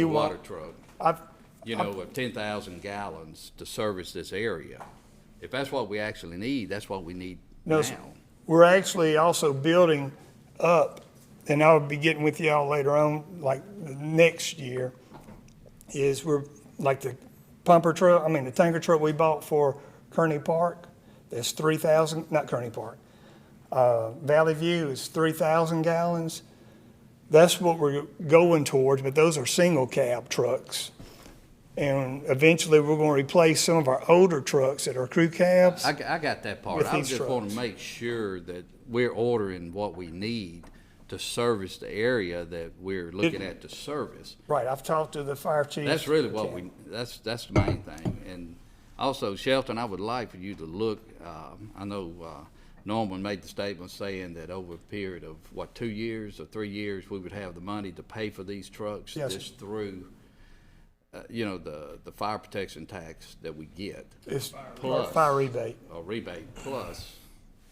You water want- truck, I've, you know, of ten thousand gallons to service this area. If that's what we actually need, that's what we need no, now. s- we're actually also building up, and I'll be getting with y'all later on, like the next year, is we're, like the pumper truck, I mean, the tanker truck we bought for Kearney Park, that's three thousand, not Kearney Park. Uh, Valley View is three thousand gallons. That's what we're going towards, but those are single cab trucks. And eventually, we're gonna replace some of our older trucks that are crew cabs. I, g- I got that part. With I these just want trucks. to make sure that we're ordering what we need to service the area that we're looking at to service. Right, I've talked to the fire chief. That's really what we, that's, that's the main thing. And also, Shelton, I would like for you to look, um, I know uh, Norman made the statement saying that over a period of, what, two years or three years, we would have the money to pay for these trucks? Yes, sir. Just through, uh, you know, the, the fire protection tax that we get, It's Plus. fire rebate. or rebate, plus,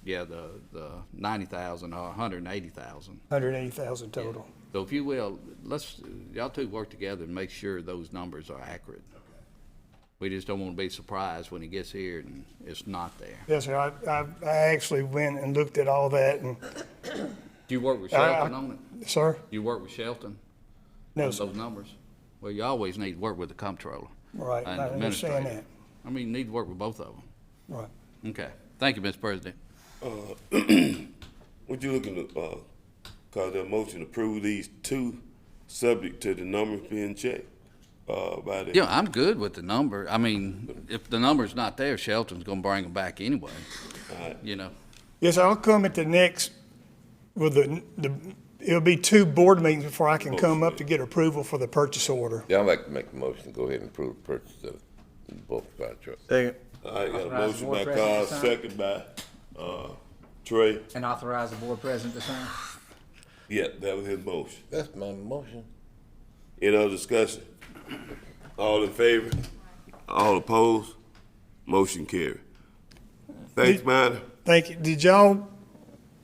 yeah, the, the ninety thousand or a hundred and eighty thousand. Hundred eighty thousand total. So if you will, let's, y'all two work together and make sure those numbers are accurate. We just don't want to be surprised when he gets here and it's not there. Yes, sir, I, I, I actually went and looked at all that and, Do you work with I- I- Shelton on it? sir, You work with Shelton? no, on sir, Those numbers? Well, you always need to work with the comptroller. Right, and I the understand administrator. I mean, you need to work with both of them. right. Okay. Thank you, Mr. President. Would you looking to, uh, cause the motion to approve these two, subject to the numbers being checked, uh, by the. Yeah, I'm good with the number. I mean, if the number's not there, Shelton's going to bring them back anyway, you know? Yes, I'll come at the next, with the, the, it'll be two board meetings before I can come up to get approval for the purchase order. Yeah, I'd like to make a motion to go ahead and approve the purchase of the bulk fire truck. Second. All right, got a motion Authorizing by board president Carl, to sign. second by, uh, Trey. And authorize the board president to sign. Yeah, that was his motion. That's my motion. Any other discussion? All in favor? All opposed? Motion carried. Thanks, man. Thank you. Did y'all,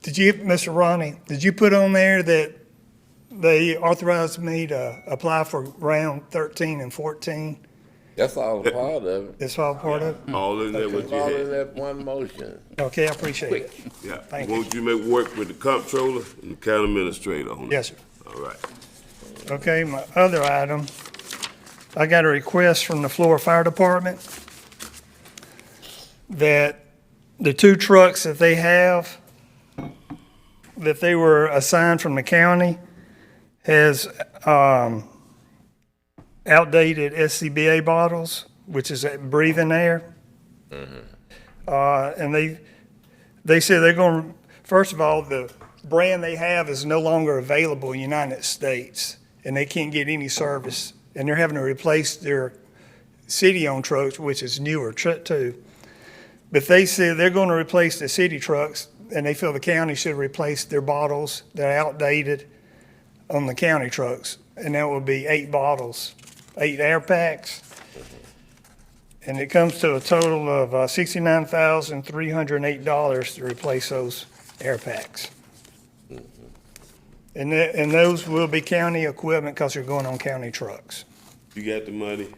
did you, Mr. Ronnie, did you put on there that they authorized me to apply for round thirteen and fourteen? That's all a part of it. That's all part of it? All in there with It's your all in head. that one motion. Okay, I appreciate it. Yeah, Thank won't you make work with the comptroller and the county administrator on it? Yes, sir. All right. Okay, my other item, I got a request from the Florida Fire Department that the two trucks that they have, that they were assigned from the county, has um, outdated SCBA bottles, which is that breathing air. Uh, And they, they said they're going, to first of all, the brand they have is no longer available in the United States, and they can't get any service. And they're having to replace their city-owned trucks, which is newer tr- too. But they said they're going to replace the city trucks, and they feel the county should replace their bottles that are outdated on the county trucks. And that would be eight bottles, eight air packs. And it comes to a total of uh, $69,308 to replace those air packs. And that, and those will be county equipment because they're going on county trucks. You got the money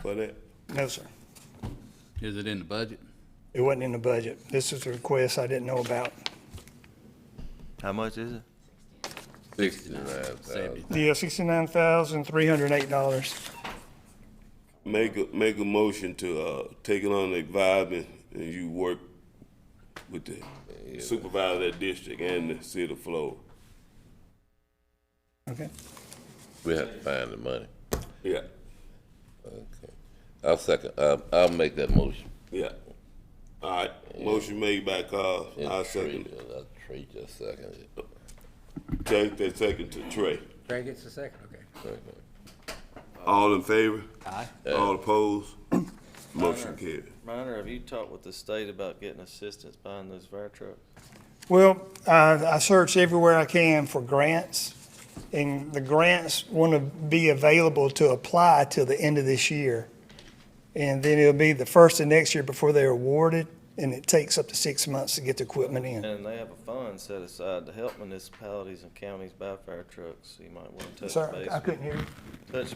for that? No, sir. Is it in the budget? It wasn't in the budget. This is a request I didn't know about. How much is it? Sixty-nine Yeah, thousand. $69,308. Make a, make a motion to, uh, take it on the vibe and you work with the supervisor of that district and the city of Florida. Okay. We have to find the money. Yeah, Okay. I'll second, uh, I'll make that motion. yeah. All right, motion made by Carl, I And second it. Trey- uh, Trey just seconded it. Take that second to Trey. Trey gets the second, okay. Okay. All in favor? Aye. All opposed? Motion carried. Reiner, have you talked with the state about getting assistance buying those fire trucks? Well, I, I search everywhere I can for grants, and the grants want to be available to apply till the end of this year. And then it'll be the first of next year before they're awarded, and it takes up to six months to get the equipment in. And they have a fund set aside to help municipalities and counties buy fire trucks, so you might want to touch Sir, base. I couldn't hear you. Touch